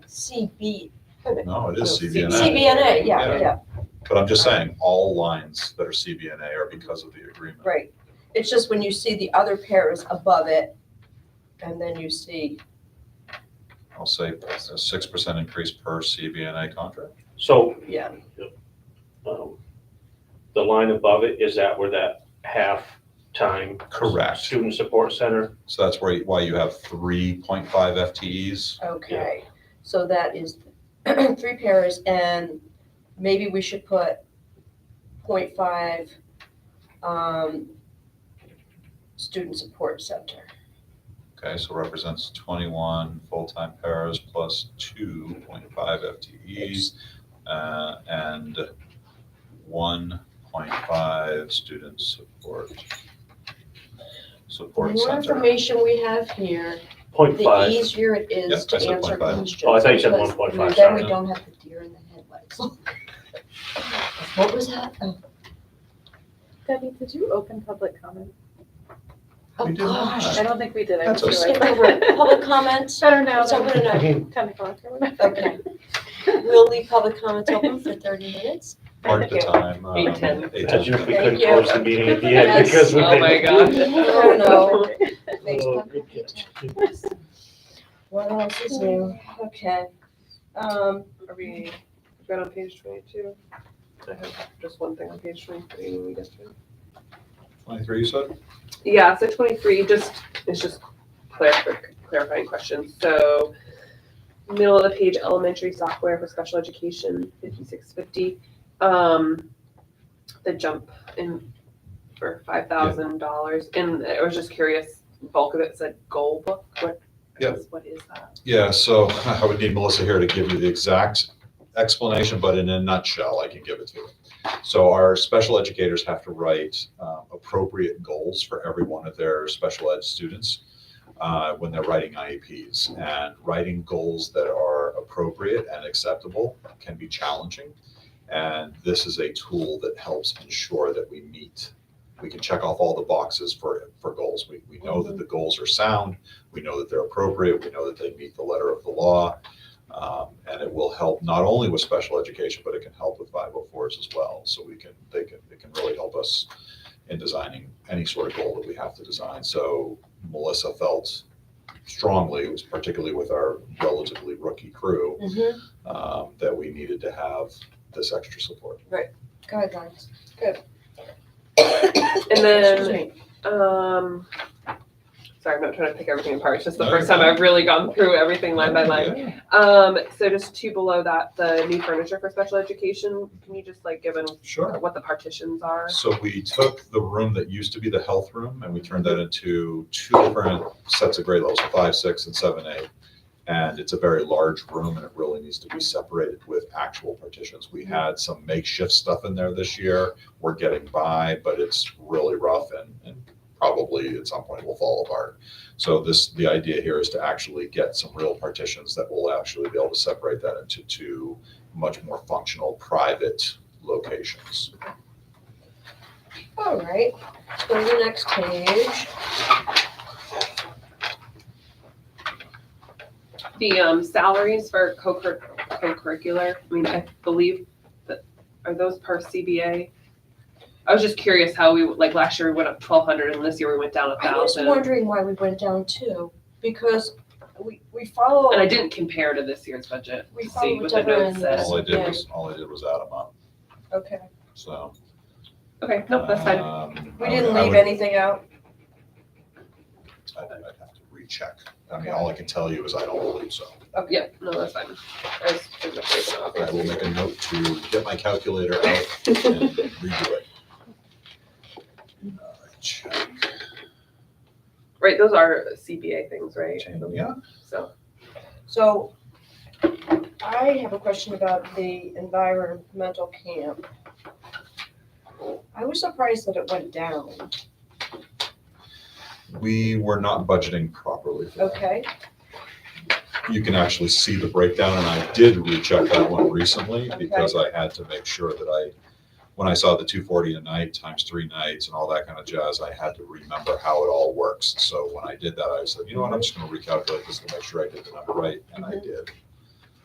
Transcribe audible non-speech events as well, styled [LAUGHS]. CB, No, it is CBNA, CBNA, yeah, Yeah. yeah, but I'm just saying, all lines that are CBNA are because of the agreement. right. It's just when you see the other pairs above it, and then you see, I'll say a six percent increase per CBNA contract. So, yeah, um, the line above it, is that where that half-time? Correct. Student Support Center? So that's where, why you have three point five FTEs. okay. So that is [CLEARS THROAT] three pairs, and maybe we should put point five, um, student support center. Okay, so represents twenty-one full-time paras plus two point five FTEs, uh, and one point five student support. The Support more center. information we have here, Point the E five, easier it Yep, is I to said answer 0.5. questions. Oh, I thought you said because 1.5, Then we sorry. don't have the deer in the headlights. [LAUGHS] What was that? Oh, Debbie, did you open public comment? oh We did not. gosh. I don't think we did. I That's was Skip like- over [LAUGHS] public comments. I don't know. It's open like, tonight. Ten o'clock or whatever. Okay. [LAUGHS] We'll leave public comments open for thirty minutes. Mark the time. um, Eight ten. eight as ten. if we Thank could you. close the meeting at the end Yes. because we Oh my didn't. God. Oh, no. Oh, Facebook. good catch. What else is new? Okay. Um, Are we, we've got on page twenty-two? I have just one thing on page twenty-three, just. Twenty-three, you said? Yeah, so twenty-three, just, it's just clarif- clarifying questions, so middle of the page, elementary software for special education, fifty-six fifty. Um, the jump in for five thousand dollars, and I was just curious, bulk of it said goal book, what, Yeah. what is that? Yeah, so [LAUGHS] I would need Melissa here to give you the exact explanation, but in a nutshell, I can give it to you. So our special educators have to write uh, appropriate goals for every one of their special ed students uh, when they're writing IEPs. And writing goals that are appropriate and acceptable can be challenging. And this is a tool that helps ensure that we meet. We can check off all the boxes for, for goals. We, we know that the goals are sound. We know that they're appropriate. We know that they meet the letter of the law. Um, and it will help not only with special education, but it can help with 504s as well. So we can, they can, it can really help us in designing any sort of goal that we have to design. So Melissa felt strongly, it was particularly with our relatively rookie crew, mhm, um, that we needed to have this extra support. guidelines. And Excuse then me. Um, sorry, I'm not trying to pick everything apart. It's just the No, first you're time I've really gone through everything line by line. Um, so just two below that, the new furniture for special education. Can you just like give an Sure. what the partitions are? So we took the room that used to be the health room and we turned that into two different sets of grade levels, five, six, and seven, eight. And it's a very large room and it really needs to be separated with actual partitions. We had some makeshift stuff in there this year. We're getting by, but it's really rough and, and probably at some point will fall apart. So this, the idea here is to actually get some real partitions that will actually be able to separate that into two much more functional private locations. All right, let's go to the next page. The um, salaries for co-cur- co-curricular. I mean, I believe that are those per CBA. I was just curious how we like last year we went up twelve hundred and this year we went down a I was thousand. wondering why we went down two, because we, we follow. And I didn't compare to this year's budget We to follow see what the whichever notes end. said. All I did Yeah. was, all I did was add them up, Okay, so. Okay, nope, that's fine. um, we I would- didn't I leave would- anything [LAUGHS] out. I'd I'd have to recheck. I mean, all I can tell you is I don't believe so. Okay. Yeah, no, that's fine. I was just afraid of I will make it. a note to get my calculator out and redo it. Uh, check. Right, those are CBA things, right? Yeah, So, So I have a question about the environmental camp. I was surprised that it went down, we were not budgeting properly for that. okay? You can actually see the breakdown, and I did recheck that one recently because I had to make sure that I, when I saw the two forty a night times three nights and all that kind of jazz, I had to remember how it all works. So when I did that, I said, you know what, I'm just gonna recalculate this to make sure I did the number right, and I did.